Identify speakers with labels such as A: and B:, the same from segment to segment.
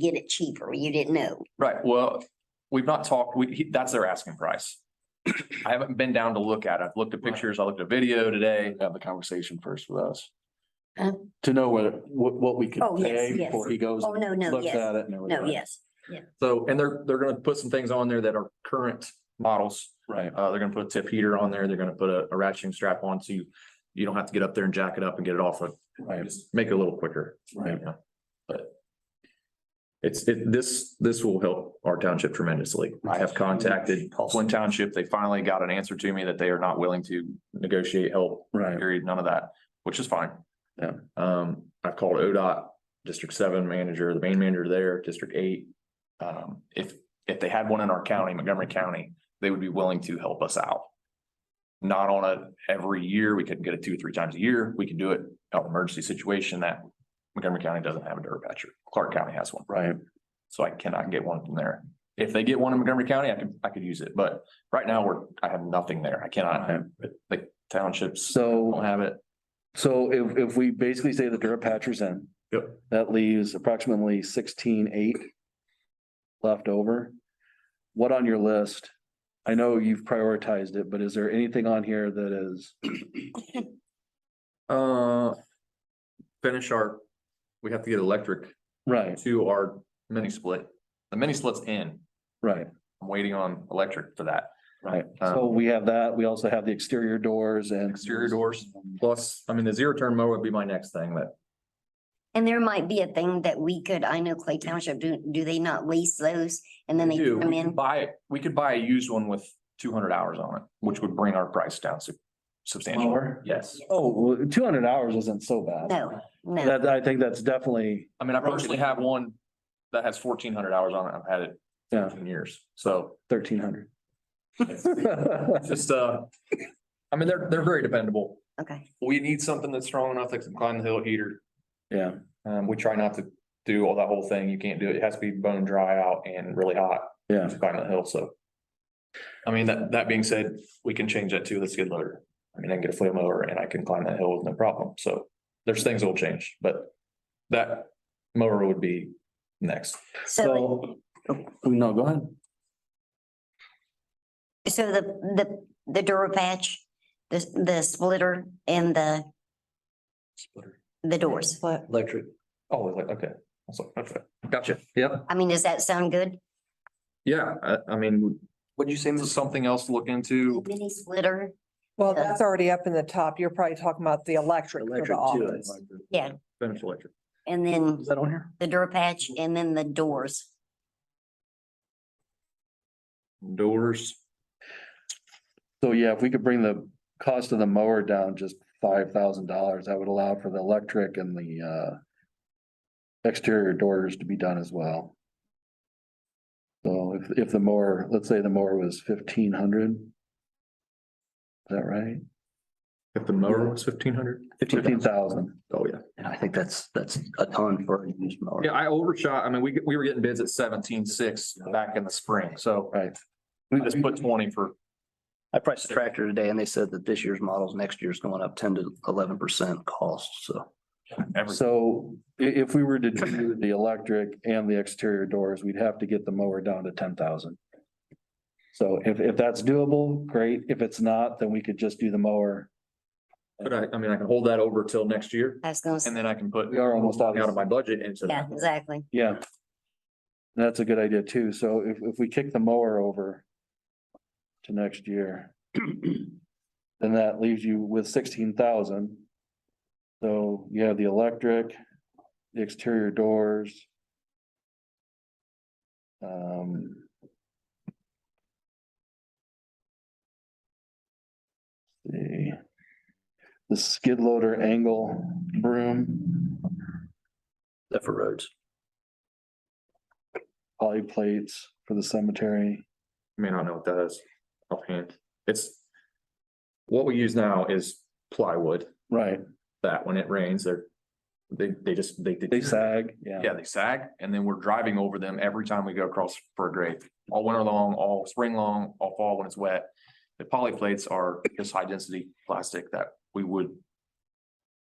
A: get it cheaper. You didn't know.
B: Right, well, we've not talked, we, he- that's their asking price. I haven't been down to look at it. I've looked at
C: Right.
B: pictures, I looked at video today.
C: have the conversation first with us.
A: Huh?
C: To know whether, what, what we could
A: Uh-huh. Oh, yes,
C: pay
A: yes.
C: before he goes,
A: Oh,
C: and
A: no, no,
C: looks
A: yes.
C: at it and everything.
A: No, yes.
B: So, and they're, they're gonna put some things on there that are current models.
C: Right,
B: Uh, they're gonna put a tip heater on there. They're gonna put a, a ratcheting strap on so you, you don't have to get up there and jack it up and get it off of,
C: right,
B: just make it a little quicker.
C: right.
B: Yeah. But it's, it, this, this will help our township tremendously. I have contacted Flint Township. They finally got an answer to me that they are not willing to negotiate help
C: Right,
B: period, none of that, which is fine.
C: Yeah.
B: Um, I've called ODOT, District Seven Manager, the main manager there, District Eight. Um, if, if they had one in our county, Montgomery County, they would be willing to help us out. Not on a, every year, we couldn't get it two or three times a year, we can do it out of emergency situation that Montgomery County doesn't have a dirt patcher, Clark County has one,
C: right,
B: so I cannot get one from there. If they get one in Montgomery County, I could, I could use it, but right now, we're, I have nothing there, I cannot,
C: right.
B: the townships don't
C: So,
B: have it.
C: so if, if we basically say the dirt patchers in.
B: Yep.
C: That leaves approximately sixteen, eight. Left over. What on your list? I know you've prioritized it, but is there anything on here that is,
B: Uh, finish our, we have to get electric
C: right,
B: to our mini split. The mini split's in.
C: right,
B: I'm waiting on electric for that.
C: right.
B: Um,
C: So we have that. We also have the exterior doors and.
B: Exterior doors. Plus, I mean, the zero turn mower would be my next thing that,
A: And there might be a thing that we could, I know Clay Township, do, do they not lease those? And then
B: we
A: they
B: do,
A: come
B: we could
A: in.
B: buy, it. we could buy a used one with two hundred hours on it, which would bring our price down sub- substantially.
C: Mower?
B: Yes.
C: Oh, two hundred hours isn't so bad.
A: No, no.
C: That, I think that's definitely,
B: I mean, I personally have one that has fourteen hundred hours on it. I've had it
C: yeah,
B: fifteen years, so.
C: thirteen hundred.
B: Just, uh, I mean, they're, they're very dependable.
A: Okay.
B: We need something that's strong enough that can climb the hill heater.
C: Yeah,
B: Um, we try not to do all that whole thing. You can't do it. It has to be bone dry out and really hot
C: yeah,
B: to climb the hill, so. I mean, that, that being said, we can change that to the skid loader. I mean, I can get a flea mower and I can climb that hill with no problem. So there's things that will change, but that mower would be next.
A: So,
C: so, Oh, no, go ahead.
A: so the, the, the Durapatch, the, the splitter and the, the doors.
C: Electric.
B: Oh, like, okay. I was like, okay. Gotcha. Yep.
A: I mean, does that sound good?
B: Yeah, I, I mean. What'd you say? Something else to look into.
A: Mini splitter?
D: Well,
A: Yeah.
D: that's already up in the top. You're probably talking about the electric for the office.
A: Yeah.
B: Finish electric.
A: And then
C: Is that on here?
A: the Durapatch and then the doors.
B: Doors.
C: So yeah, if we could bring the cost of the mower down just five thousand dollars, that would allow for the electric and the, uh. Exterior doors to be done as well. So if, if the mower, let's say the mower was fifteen hundred. Is that right?
B: If the mower was fifteen hundred.
C: Fifteen thousand.
B: Oh, yeah.
E: And I think that's, that's a ton for a used mower.
B: Yeah, I overshot. I mean, we, we were getting bids at seventeen six back in the spring, so
C: Right.
B: I just put twenty for,
E: I priced a tractor today and they said that this year's models, next year's going up ten to eleven percent cost, so.
B: every,
C: So i- if we were to do the electric and the exterior doors, we'd have to get the mower down to ten thousand. So if, if that's doable, great. If it's not, then we could just do the mower.
B: but I, I mean, I can hold that over till next year
A: I was gonna,
B: and
A: say
B: then I can put
C: We are almost out
B: out of
C: of,
B: my budget into
A: yeah,
B: that.
A: exactly.
C: yeah. That's a good idea too. So if, if we kick the mower over to next year, then that leaves you with sixteen thousand. So you have the electric, the exterior doors. Um. The, the skid loader angle broom,
E: That for roads.
C: poly plates for the cemetery.
B: I mean, I don't know what that is offhand. It's what we use now is plywood,
C: Right,
B: that when it rains, they're, they, they just, they.
C: they sag, yeah.
B: Yeah, they sag and then we're driving over them every time we go across for a grade, all winter long, all spring long, all fall when it's wet. The poly plates are just high density plastic that we would.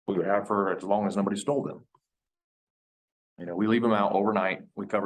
B: We would have for as long as nobody stole them. You know, we leave them out overnight, we cover